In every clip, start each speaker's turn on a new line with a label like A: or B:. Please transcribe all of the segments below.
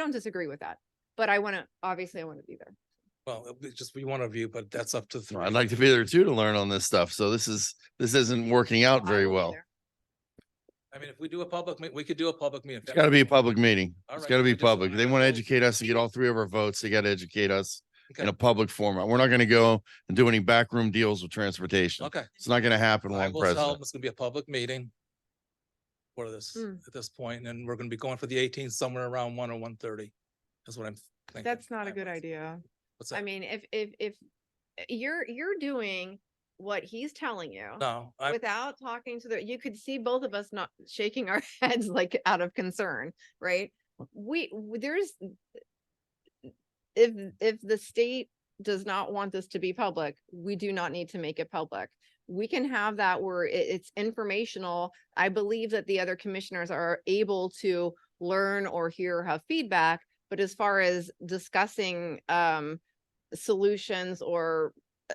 A: don't disagree with that, but I want to, obviously I want to be there.
B: Well, it'll be just we want to view, but that's up to.
C: No,
B: three.
C: I'd like to be there too to learn on this stuff. So this is, this isn't working out
A: I
C: very
A: will be
C: well.
A: there.
B: I mean, if we do a public, meet, we could do a public meeting.
C: It's gotta be a public meeting.
B: All
C: It's
B: right,
C: gotta
B: I
C: be
B: just wanna-
C: public. They want to educate us to get all three of our votes. They got to educate us in
B: Okay.
C: a public format. We're not going to go and do any backroom deals with transportation.
B: Okay.
C: It's not going to happen
B: I
C: while I'm
B: will tell them
C: president.
B: it's gonna be a public meeting for this,
A: Mm.
B: at this point, and we're gonna be going for the eighteenth somewhere around one or one thirty. That's what I'm thinking.
A: That's not a good
B: timeline.
A: idea.
B: What's
A: I
B: that?
A: mean, if, if, if you're, you're doing what he's telling you
B: No, I,
A: without talking to the, you could see both of us not shaking our heads like out of concern, right? We, w- there's, if, if the state does not want this to be public, we do not need to make it public. We can have that where it, it's informational. I believe that the other commissioners are able to learn or hear, have feedback. But as far as discussing, um, solutions or uh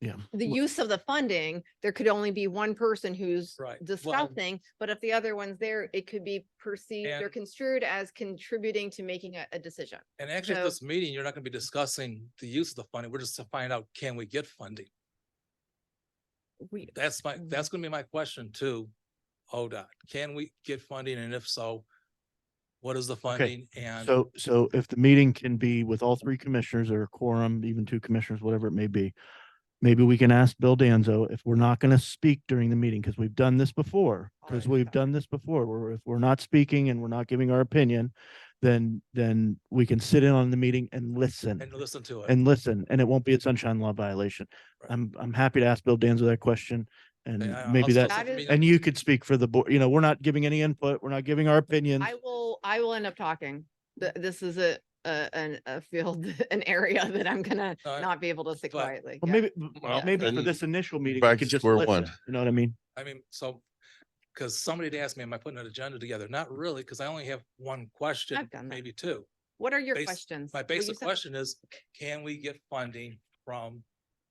C: Yeah.
A: the
C: Wh-
A: use of the funding, there could only be one person who's
B: Right. Well, um
A: discussing, but if the other one's there, it could be perceived or
B: And-
A: construed as contributing to making a, a decision.
B: and actually at
A: so-
B: this meeting, you're not gonna be discussing the use of the funding. We're just to find out, can we get funding?
A: We,
B: That's my,
A: Mm.
B: that's gonna be my question to ODOT. Can we get funding? And if so, what is the funding? And
D: So, so if the meeting can be with all three commissioners or a quorum, even two commissioners, whatever it may be, maybe we can ask Bill Danzo if we're not going to speak during the meeting, because we've done this before, because
B: Right.
D: we've done this before, where if we're not speaking and we're not giving our opinion, then, then we can sit in on the meeting and listen,
B: and listen to it.
D: and listen, and it won't be a sunshine law violation.
B: Right.
D: I'm, I'm happy to ask Bill Danzo that question, and
B: And I- I'll
D: maybe
B: still
D: that,
A: That
B: send
A: is-
B: me-
D: and you could speak for the board, you know, we're not giving any input, we're not giving our opinions.
A: I will, I will end up talking. Th- This is a, a, an, a field, an area that I'm gonna
B: No, I-
A: not be able to sit
B: but-
A: quietly.
D: Well,
A: yeah.
D: maybe,
C: Well,
D: maybe for
C: then
D: this initial meeting,
C: back
D: we
C: to
D: could just
C: square
D: listen,
C: one.
D: you know what I mean?
B: I mean, so, because somebody had asked me, am I putting an agenda together? Not really, because I only have one question,
A: I've done that.
B: maybe two.
A: What are your
B: bas-
A: questions?
B: My
A: Will you
B: basic
A: send-
B: question is, can we get funding from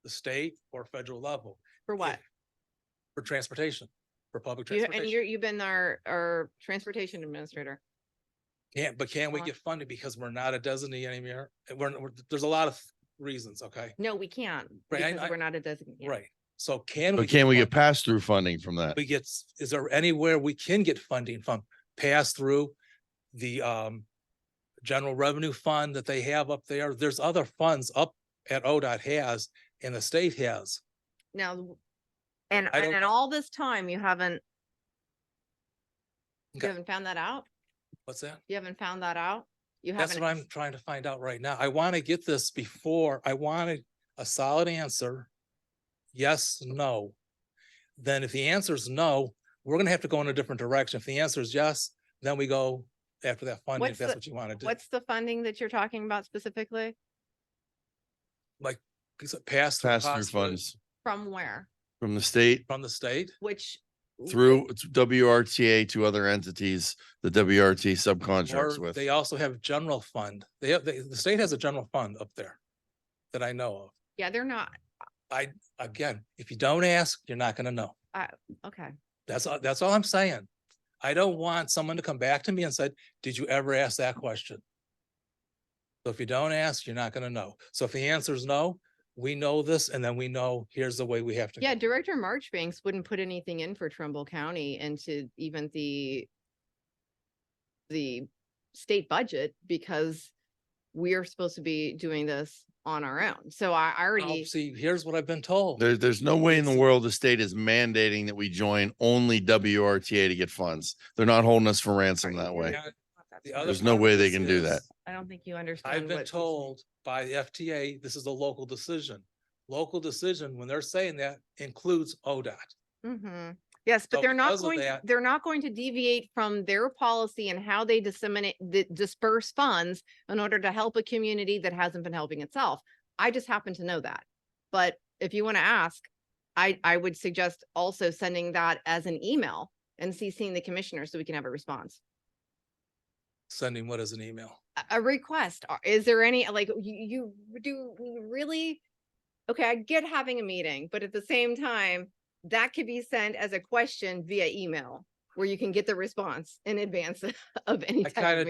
B: the state or federal level?
A: For
B: If-
A: what?
B: For transportation, for public
A: You, and you're,
B: transportation.
A: you've been our, our transportation administrator.
B: Can, but can we
A: Uh-huh.
B: get funding because we're not a designee anymore? And We're, we're- there's a lot of reasons, okay?
A: No, we can't
B: Right, I-
A: because
B: I-
A: we're not a designated.
B: Right, so can we?
C: But can we get
B: fund-
C: pass through funding from that?
B: We get, s- is there anywhere we can get funding from, pass through the um. General Revenue Fund that they have up there, there's other funds up at ODOT has and the state has.
A: Now, w- and,
B: I don't-
A: and in all this time, you haven't, you
B: Okay.
A: haven't found that out?
B: What's that?
A: You haven't found that out? You
B: That's
A: haven't.
B: what I'm trying to find out right now. I want to get this before, I wanted a solid answer. Yes, no. Then if the answer is no, we're gonna have to go in a different direction. If the answer is yes, then we go after that funding, if
A: What's
B: that's
A: the-
B: what you want to do.
A: What's the funding that you're talking about specifically?
B: Pass.
C: Pass through funds
A: From where?
C: from the state
B: From the state?
A: Which?
C: through t- WRTA to other entities, the WRT subcontracts
B: Or
C: with.
B: they also have general fund. They have, they- the state has a general fund up there that I know of.
A: Yeah, they're not.
B: Again, if you don't ask, you're not gonna know.
A: Okay.
B: That's, all. that's all I'm saying. I don't want someone to come back to me and said, did you ever ask that question? So if you don't ask, you're not gonna know. So if the answer is no, we know this and then we know here's the way we have to.
A: Yeah,
B: go.
A: Director Marchbanks wouldn't put anything in for Trumbull County into even the the state budget because we are supposed to be doing this on our own. Oh, So I I
B: Well,
A: already.
B: See, here's what I've been told.
C: There, there's no way in the
B: Oh. It's-
C: world the state is mandating that we join only WRTA to get funds. They're not holding us for ransom that way.
B: Yeah, the other
C: There's no
B: part of
C: way they
B: this
C: can do
B: is-
C: that.
A: I don't think you understand.
B: I've
A: what
B: been
A: he's-
B: told by the FTA, this is a local decision. Local decision, when they're saying that, includes ODOT.
A: hmm Yes, but
B: So
A: they're not
B: because of
A: going, to-
B: that-
A: they're not going to deviate from their policy and how they disseminate, the disperse funds in order to help a community that hasn't been helping itself. I just happen to know that. But if you want to ask, I, I would suggest also sending that as an email and CCing the commissioner so we can have a response.
B: Sending what is an email?
A: A- A request, uh, is there any, like, you, you do we really? Okay, I get having a meeting, but at the same time, that could be sent as a question via email where you can get the response in advance of any
B: I
A: type of
B: kinda